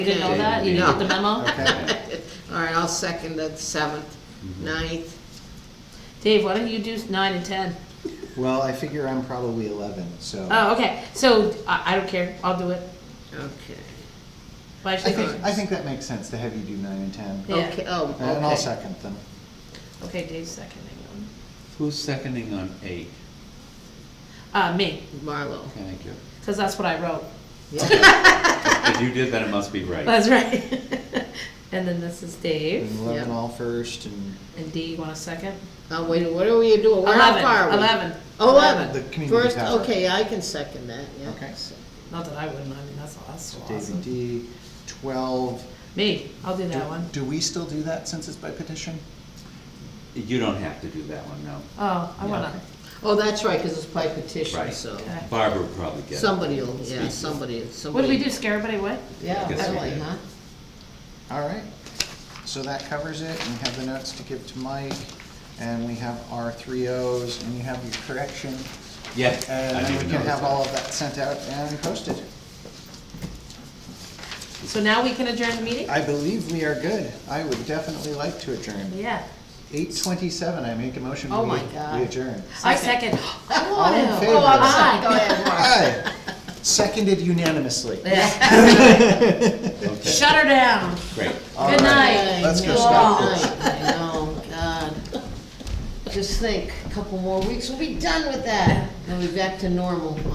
You didn't know that? You didn't get the memo? Okay. All right, I'll second the seventh, Mm-hmm. ninth. Dave, why don't you do nine and ten? Well, I figure I'm probably eleven, so. Oh, okay, so I, I don't care, I'll do it. Okay. Why should I think, I think that makes sense to have you do nine and ten. Yeah. Okay, oh, okay. And I'll second them. Okay, Dave's seconding one. Who's seconding on eight? Uh, me, Marlo. Thank you. because that's what I wrote. If you did that, it must be right. That's right. And then this is Dave. And eleven Yeah. all first and And D, you want a second? Oh, wait, what are we doing? Where, how Eleven. far are we? Eleven. Eleven. The community First, power. okay, I can second that, yeah. Okay. So- Not that I wouldn't, I mean, that's, that's so Dave and awesome. D, twelve. Me, I'll do Do- that one. Do we still do that since it's by petition? You don't have to do that one, no. Oh, I Yeah, wanna, okay. Oh, that's right, because it's by petition, Right. so Okay. Barbara would probably get it. somebody will, yeah, Speak. somebody, what somebody. do we do, scare everybody away? Yeah, I guess we really, did. huh? All right. So that covers it. We have the notes to give to Mike and we have our three Os and you have your correction. Yeah. I And didn't then we can notice have that. all of that sent out and posted. So now we can adjourn the meeting? I believe we are good. I would definitely like to adjourn. Yeah. Eight twenty-seven, I make a motion, we Oh my we God. adjourn. I second. I All in want to. favor? Oh, I'm sorry, go ahead, Mark. Aye. Seconded unanimously. Yeah. Okay, Shut her down. great. All Good right. night. Let's go I know, stop good this. night. I know, God. Just think, a couple more weeks, we'll be done with that. We'll be back to normal.